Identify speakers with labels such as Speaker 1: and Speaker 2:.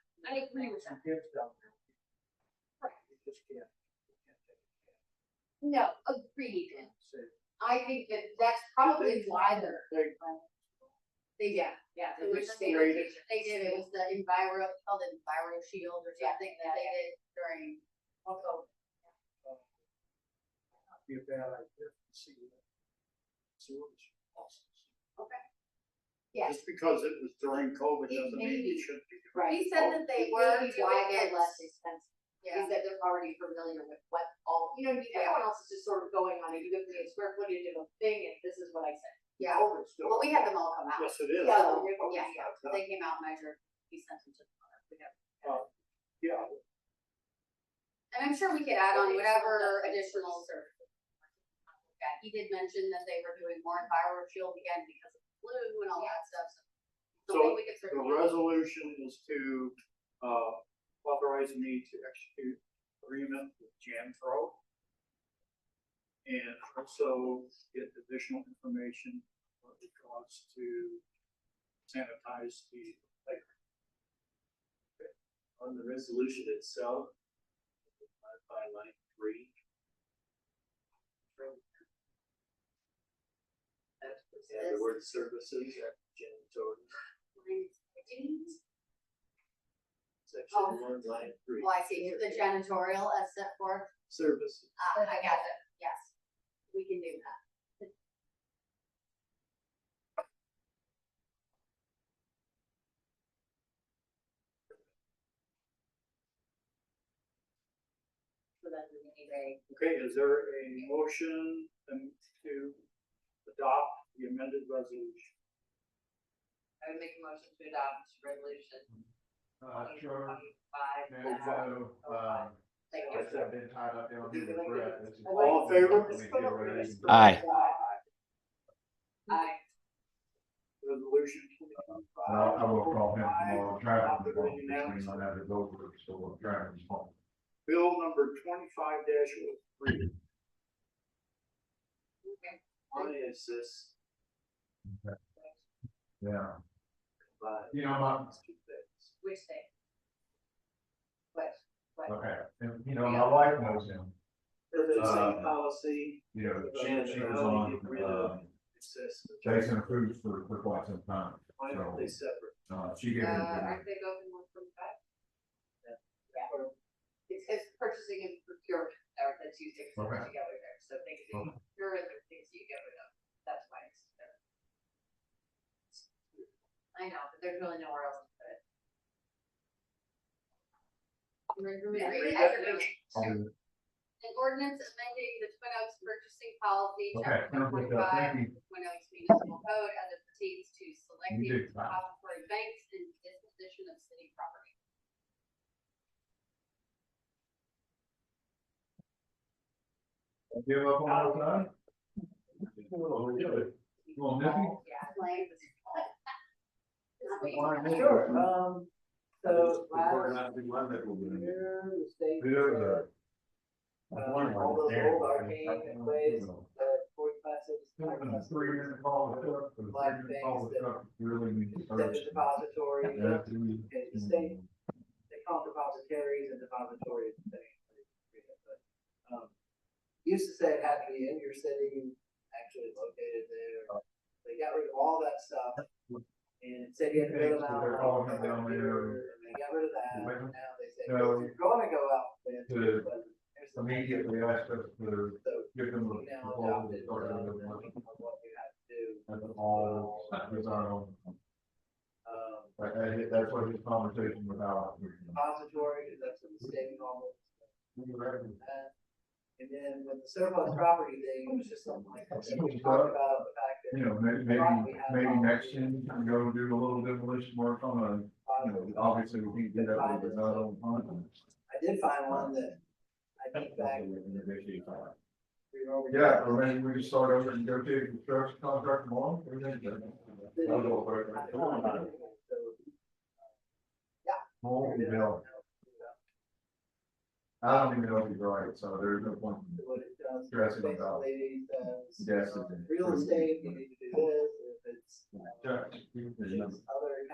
Speaker 1: agree with them.
Speaker 2: Kids down there.
Speaker 1: Right.
Speaker 2: You just can't, you can't take a chance
Speaker 1: No, agreed.
Speaker 2: and say,
Speaker 1: I think that that's probably why they're. They, yeah, yeah.
Speaker 3: It was
Speaker 1: they-
Speaker 3: created.
Speaker 1: They did, it was the enviro, called it enviro shield or
Speaker 3: Yeah,
Speaker 1: something that
Speaker 3: yeah,
Speaker 1: they
Speaker 3: yeah.
Speaker 1: did during. Also,
Speaker 2: uh, might uh, Be a bad idea to see what. See what it's possible.
Speaker 1: yes,
Speaker 4: Just because it was during COVID
Speaker 1: It
Speaker 4: doesn't
Speaker 1: may
Speaker 4: mean
Speaker 1: be.
Speaker 4: it should be.
Speaker 3: Right.
Speaker 1: he said that they were
Speaker 3: Maybe
Speaker 1: doing
Speaker 3: why
Speaker 1: it
Speaker 3: they're
Speaker 1: less
Speaker 3: less expensive,
Speaker 1: Yeah.
Speaker 3: is that they're already familiar with what all, you know, what I mean? everyone else is just sort of going on, it. you give me a square footage of a thing, and this is what I said.
Speaker 1: Yeah,
Speaker 4: COVID still.
Speaker 3: Well, we had them all come out,
Speaker 4: Yes, it is.
Speaker 3: Yeah,
Speaker 4: Oh,
Speaker 3: yeah,
Speaker 4: yeah,
Speaker 3: so they came out, measured, we sent them to the owner, we have.
Speaker 4: Yeah,
Speaker 3: And I'm sure we could add on whatever
Speaker 5: Uh,
Speaker 3: additional services. Yeah, he did mention that they were doing more viral shield again because of flu and all that stuff, so.
Speaker 4: So,
Speaker 3: we could
Speaker 4: the
Speaker 3: certainly-
Speaker 4: resolution is to, uh, authorize me to execute agreement with Janpro. And also get additional information on the cost to sanitize the lake.
Speaker 6: On the resolution itself, uh, by line three, and the word services at janitorial, section
Speaker 3: Oh.
Speaker 6: one, line three.
Speaker 3: Well, I see, the janitorial as set forth,
Speaker 6: Services.
Speaker 3: ah, I got it, yes, we can do that. So then we need a,
Speaker 4: okay, is there a motion um, to adopt the amended resolution?
Speaker 7: I would make a motion to adopt resolution
Speaker 5: Uh, sure,
Speaker 7: twenty-five.
Speaker 5: there's, uh, um,
Speaker 7: Thank you.
Speaker 5: I said I've been tied up there with the breath. This is-
Speaker 4: All in favor?
Speaker 5: Let me get ready.
Speaker 8: Aye.
Speaker 7: Aye.
Speaker 4: Resolution
Speaker 5: And I'll- I
Speaker 4: twenty-five.
Speaker 5: will call him tomorrow, I'm traveling tomorrow, between my other over, so I'm traveling tomorrow.
Speaker 4: Bill number twenty-five dash oh three.
Speaker 6: Why is this
Speaker 5: Yeah,
Speaker 6: combined?
Speaker 5: you know, my,
Speaker 6: These two things.
Speaker 3: which day?
Speaker 5: okay, and, you know, my wife knows him,
Speaker 6: Is it the
Speaker 5: Uh,
Speaker 6: same policy?
Speaker 5: you know,
Speaker 6: Jan,
Speaker 5: she was
Speaker 6: how do you
Speaker 5: on,
Speaker 6: get rid of
Speaker 5: um,
Speaker 6: It says,
Speaker 5: Jason Cruz for, for quite some time.
Speaker 6: why aren't they separate?
Speaker 5: Uh,
Speaker 7: Uh,
Speaker 5: she gave me,
Speaker 7: aren't they both in one twenty-five?
Speaker 3: It's, it's purchasing and procurement,
Speaker 7: Or the two things that are
Speaker 5: Okay.
Speaker 7: together there, so things that
Speaker 5: Okay.
Speaker 7: you're in, the things you get rid of, that's why it's. there.
Speaker 3: uh, I know, but there's really nowhere else to put it. Remember, we
Speaker 7: Yeah, read
Speaker 3: read as
Speaker 7: that
Speaker 3: a-
Speaker 7: thing.
Speaker 5: oh,
Speaker 3: An ordinance amending the Twin Oaks purchasing policy,
Speaker 5: okay,
Speaker 3: chapter one
Speaker 5: thank you, thank
Speaker 3: forty-five,
Speaker 5: you.
Speaker 3: Twin Oaks Municipal Code as it pertains to
Speaker 5: You
Speaker 3: selecting
Speaker 5: do.
Speaker 3: depository banks and disposition of city property.
Speaker 5: Give up on our time? Well, we do it. You want Nippy?
Speaker 3: Yeah. Like. Not me.
Speaker 2: Sure, um, so
Speaker 6: We're
Speaker 2: last
Speaker 6: not doing one that will be-
Speaker 2: year, the state.
Speaker 5: Yeah.
Speaker 2: Uh, all those old arcane ways, uh, board classes, art classes,
Speaker 5: Three minute call with her, for the
Speaker 2: Black
Speaker 5: three minute call
Speaker 2: things
Speaker 5: with her, really need to
Speaker 2: set
Speaker 5: search.
Speaker 2: the depository,
Speaker 5: Yeah,
Speaker 2: uh,
Speaker 5: do
Speaker 2: and the
Speaker 5: we-
Speaker 2: state, they call them depositories and depositories. and things, but, um, Used to say it had to be in your city, actually located there, they got rid of all that stuff. And it said you had to go to Mount
Speaker 5: They're calling them
Speaker 2: Vernon,
Speaker 5: down there.
Speaker 2: and They got rid of that,
Speaker 5: Wait.
Speaker 2: now they say,
Speaker 5: No.
Speaker 2: if you're gonna go out there.
Speaker 5: To
Speaker 2: but here's the-
Speaker 5: Immediately ask us to
Speaker 2: So,
Speaker 5: give them
Speaker 2: we
Speaker 5: the
Speaker 2: now
Speaker 5: call,
Speaker 2: adopted,
Speaker 5: start
Speaker 2: um,
Speaker 5: a
Speaker 2: the
Speaker 5: new one.
Speaker 2: meaning of what you have to do,
Speaker 5: And then all, it's our own,
Speaker 2: um,
Speaker 5: That- that- that's what his conversation was about.
Speaker 2: depository, that's what the state calls it.
Speaker 5: We were having-
Speaker 2: that. And then with the surplus property thing, it was just something like, I think we talked about the fact that.
Speaker 5: You know, may- maybe, maybe next year, we can go do a little demolition work on a You know, obviously, we can do that with the not on pond.
Speaker 2: I did find one that I think back. we were over-
Speaker 5: Yeah, or maybe we can start over and go to construction contract tomorrow. or
Speaker 2: I
Speaker 5: then-
Speaker 2: don't know. So,
Speaker 5: More than hell. I don't even know if you're right, so there's no point.
Speaker 2: What it does. is
Speaker 5: Dressing it up.
Speaker 2: basically says,
Speaker 5: Yes,
Speaker 2: um,
Speaker 5: it is.
Speaker 2: Real estate, you need to do this, if it's.
Speaker 5: Yeah.
Speaker 2: if it's Other